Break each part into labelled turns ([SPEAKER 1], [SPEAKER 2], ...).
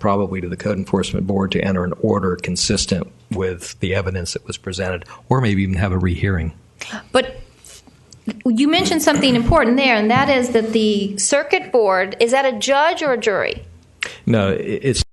[SPEAKER 1] probably to the code enforcement board to enter an order consistent with the evidence that was presented, or maybe even have a rehearing.
[SPEAKER 2] But you mentioned something important there, and that is that the circuit board is that a judge or a jury?
[SPEAKER 1] No, i- it's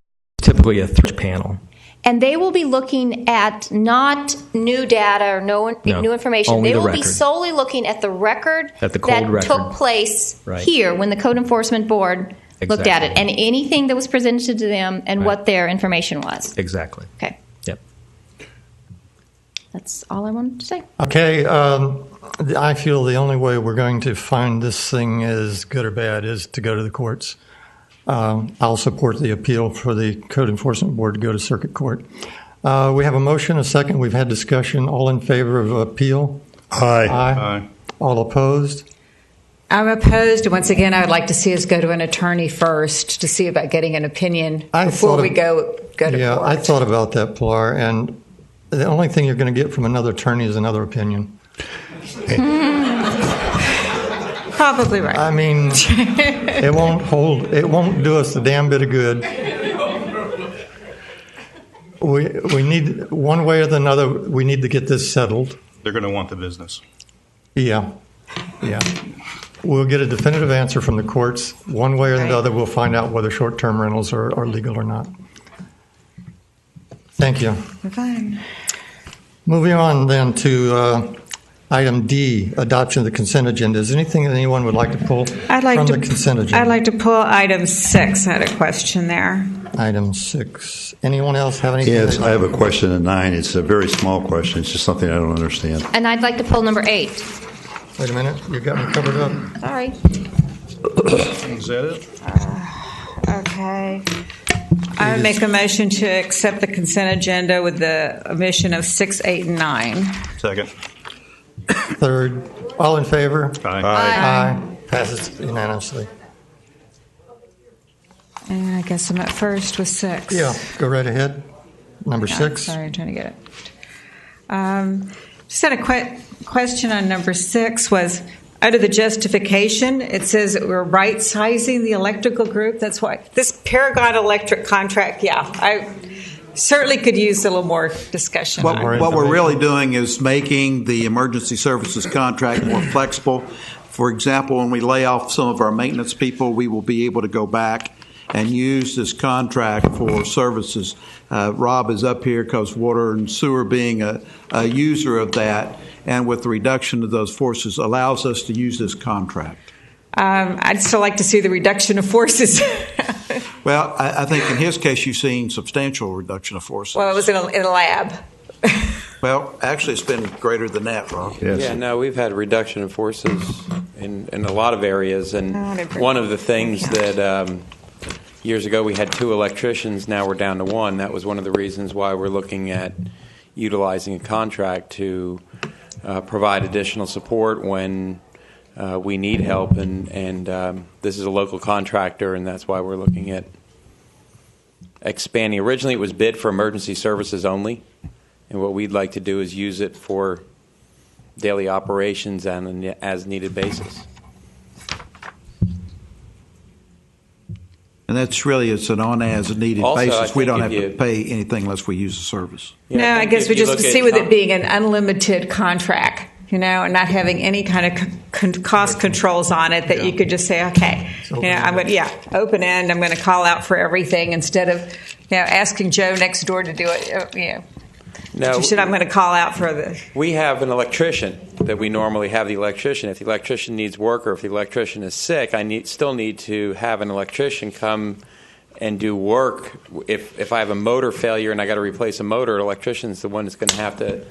[SPEAKER 1] typically a three panel.
[SPEAKER 2] And they will be looking at not new data or no,
[SPEAKER 1] No,
[SPEAKER 2] new information.
[SPEAKER 1] only
[SPEAKER 2] they
[SPEAKER 1] the
[SPEAKER 2] will be
[SPEAKER 1] record.
[SPEAKER 2] solely looking at the record
[SPEAKER 1] At the cold
[SPEAKER 2] that
[SPEAKER 1] record.
[SPEAKER 2] took place
[SPEAKER 1] Right.
[SPEAKER 2] here when the code enforcement board looked at it
[SPEAKER 1] Exactly.
[SPEAKER 2] and anything that was presented to them and
[SPEAKER 1] Right.
[SPEAKER 2] what their information was.
[SPEAKER 1] Exactly.
[SPEAKER 2] Okay,
[SPEAKER 1] Yep.
[SPEAKER 2] that's all I wanted to say.
[SPEAKER 3] Okay, um, I feel the only way we're going to find this thing is good or bad is to go to the courts. Um, I'll support the appeal for the code enforcement board to go to circuit court. Uh, we have a motion, a second. We've had discussion. All in favor of appeal?
[SPEAKER 4] Aye.
[SPEAKER 3] All opposed?
[SPEAKER 5] I'm opposed. Once again, I would like to see us go to an attorney first to see about getting an opinion
[SPEAKER 3] I
[SPEAKER 5] before
[SPEAKER 3] thought
[SPEAKER 5] we
[SPEAKER 3] of-
[SPEAKER 5] go go to
[SPEAKER 3] yeah,
[SPEAKER 5] court.
[SPEAKER 3] I thought about that, Pilar, and the only thing you're going to get from another attorney is another opinion.
[SPEAKER 5] probably right.
[SPEAKER 3] I mean, it won't hold. It won't do us a damn bit of good. We we need one way or the other. We need to get this settled.
[SPEAKER 4] They're going to want the business.
[SPEAKER 3] Yeah, yeah. We'll get a definitive answer from the courts. One way or the other, we'll find out whether short-term rentals are, are legal or not. Thank you.
[SPEAKER 5] Fine.
[SPEAKER 3] Moving on then to uh, item D, adoption of the consent agenda. Is there anything that anyone would like to pull
[SPEAKER 6] I'd like
[SPEAKER 3] from
[SPEAKER 6] to,
[SPEAKER 3] the consent agenda?
[SPEAKER 6] I'd like to pull item six. I had a question there.
[SPEAKER 3] Item six. Anyone else have anything?
[SPEAKER 7] Yes,
[SPEAKER 3] that-
[SPEAKER 7] I have a question at nine. It's a very small question. It's just something I don't understand.
[SPEAKER 2] And I'd like to pull number eight.
[SPEAKER 3] Wait a minute, you got me covered up.
[SPEAKER 2] Sorry.
[SPEAKER 4] Is that it?
[SPEAKER 6] Okay. I would make a motion to accept the consent agenda with the omission of six, eight, and nine.
[SPEAKER 4] Second.
[SPEAKER 3] Third, all in favor?
[SPEAKER 4] Aye.
[SPEAKER 3] Aye. Passes unanimously.
[SPEAKER 5] And I guess I'm at first with six.
[SPEAKER 3] Yeah, go right ahead. Number
[SPEAKER 5] Yeah,
[SPEAKER 3] six.
[SPEAKER 5] Sorry, I'm trying to get it.
[SPEAKER 6] Um, Just had a que- question on number six was, under the justification, it says that we're right-sizing the electrical group. That's why, this Paragon Electric contract, yeah, I certainly could use a little more discussion on
[SPEAKER 3] What we're-
[SPEAKER 6] it.
[SPEAKER 8] What we're
[SPEAKER 3] information.
[SPEAKER 8] really doing is making the emergency services contract more flexible. For example, when we lay off some of our maintenance people, we will be able to go back and use this contract for services. Uh, Rob is up here because water and sewer being a, a user of that, and with the reduction of those forces, allows us to use this contract.
[SPEAKER 6] Um, I'd still like to see the reduction of forces.
[SPEAKER 8] Well, I, I think in his case, you've seen substantial reduction of forces.
[SPEAKER 6] Well, it was in a, in a lab.
[SPEAKER 8] Well, actually, it's been greater than that, Rob.
[SPEAKER 9] Yeah, no, we've had reduction in forces in, in a lot of areas,
[SPEAKER 6] Oh,
[SPEAKER 9] and
[SPEAKER 6] they've been-
[SPEAKER 9] one of the things
[SPEAKER 6] Yeah.
[SPEAKER 9] that, um, years ago, we had two electricians, now we're down to one. That was one of the reasons why we're looking at utilizing a contract to uh, provide additional support when uh, we need help, and, and um, this is a local contractor, and that's why we're looking at expanding. Originally, it was bid for emergency services only, and what we'd like to do is use it for daily operations on an as-needed basis.
[SPEAKER 8] And that's really, it's an on-as-needed
[SPEAKER 9] Also, I
[SPEAKER 8] basis. We
[SPEAKER 9] think
[SPEAKER 8] don't
[SPEAKER 9] if
[SPEAKER 8] have
[SPEAKER 9] you-
[SPEAKER 8] to pay anything unless we use the service.
[SPEAKER 9] Yeah,
[SPEAKER 6] no, I
[SPEAKER 9] think
[SPEAKER 6] guess
[SPEAKER 9] if
[SPEAKER 6] we
[SPEAKER 9] you
[SPEAKER 6] just
[SPEAKER 9] look at
[SPEAKER 6] see with
[SPEAKER 9] com-
[SPEAKER 6] it being an unlimited contract, you know, and not having any kind of con- con- cost controls on it that you could just say, okay, you know, I'm going to, yeah, open end, I'm going to call out for everything instead of, you know, asking Joe next door to do it, uh, you know.
[SPEAKER 9] No,
[SPEAKER 6] She said, I'm going to call out for the,
[SPEAKER 9] we have an electrician that we normally have the electrician. If the electrician needs work or if the electrician is sick, I need, still need to have an electrician come and do work. If, if I have a motor failure and I got to replace a motor, an electrician's the one that's going to have to,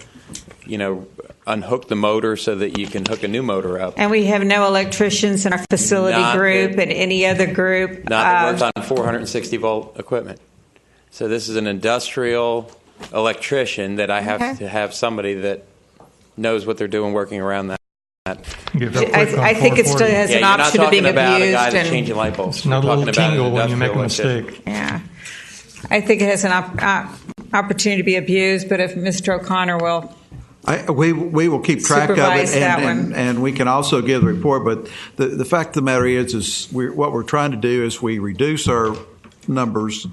[SPEAKER 9] you know, unhook the motor so that you can hook a new motor up.
[SPEAKER 6] and we have no electricians in our facility
[SPEAKER 9] Not that-
[SPEAKER 6] group and any other group.
[SPEAKER 9] Not that works
[SPEAKER 6] uh,
[SPEAKER 9] on 460 volt equipment. So this is an industrial electrician that I have
[SPEAKER 6] Okay.
[SPEAKER 9] to have somebody that knows what they're doing working around that.
[SPEAKER 3] Give up
[SPEAKER 6] I,
[SPEAKER 3] quick on
[SPEAKER 6] I think it still
[SPEAKER 3] 440.
[SPEAKER 6] has an
[SPEAKER 9] you're not
[SPEAKER 6] option of
[SPEAKER 9] talking
[SPEAKER 6] being
[SPEAKER 9] about a guy
[SPEAKER 6] abused
[SPEAKER 9] that's
[SPEAKER 6] and.
[SPEAKER 9] changing light bulbs.
[SPEAKER 3] Not a
[SPEAKER 9] We're
[SPEAKER 3] little
[SPEAKER 9] talking about an
[SPEAKER 3] tingle when you make a
[SPEAKER 9] industrial electrician.
[SPEAKER 3] mistake.
[SPEAKER 6] Yeah. I think it has an op- uh, opportunity to be abused, but if Mr. O'Connor will,
[SPEAKER 8] I, we, we will keep track of it,
[SPEAKER 6] Supervise that
[SPEAKER 8] and,
[SPEAKER 6] one.
[SPEAKER 8] and, and we can also give the report. But the, the fact of the matter is, is we're, what we're trying to do is we reduce our numbers